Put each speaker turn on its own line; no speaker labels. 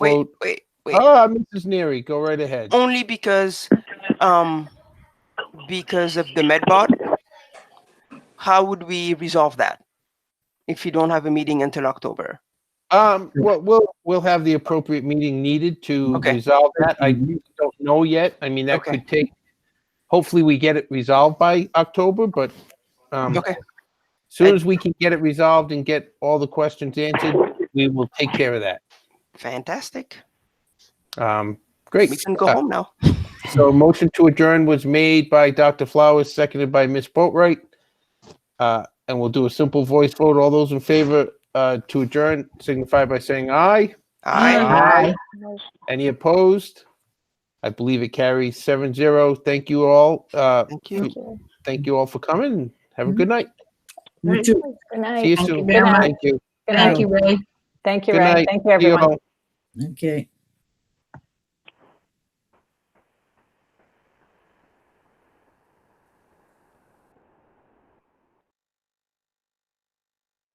Wait,
Well-
wait, wait. Oh.
Ah, Mrs. Neary, go right ahead.
Only because, um, because of the MedBot. How would we resolve that if you don't have a meeting until October?
Um, well, we'll, we'll have the appropriate meeting needed to
Okay.
resolve that. I don't know yet. I mean, that
Okay.
could take, hopefully we get it resolved by October, but, um,
Okay,
soon as we can get it resolved and get all the questions answered, we will take care of that.
fantastic.
Um, great.
We can go
Uh,
home now.
So a motion to adjourn was made by Dr. Flowers, seconded by Ms. Boatright. Uh, and we'll do a simple voice vote. All those in favor, uh, to adjourn signify by saying aye.
I
Aye. Any opposed? I believe it carries seven zero. Thank you all. Uh,
thank you.
thank you all for coming. Have a good night.
You too.
Good
See
night.
you
Thank you
soon.
very much.
Thank you.
Good
Thank
night.
you, Ray.
Thank you,
Good
Ray.
night.
Thank you,
See you
everyone.
all.
Okay.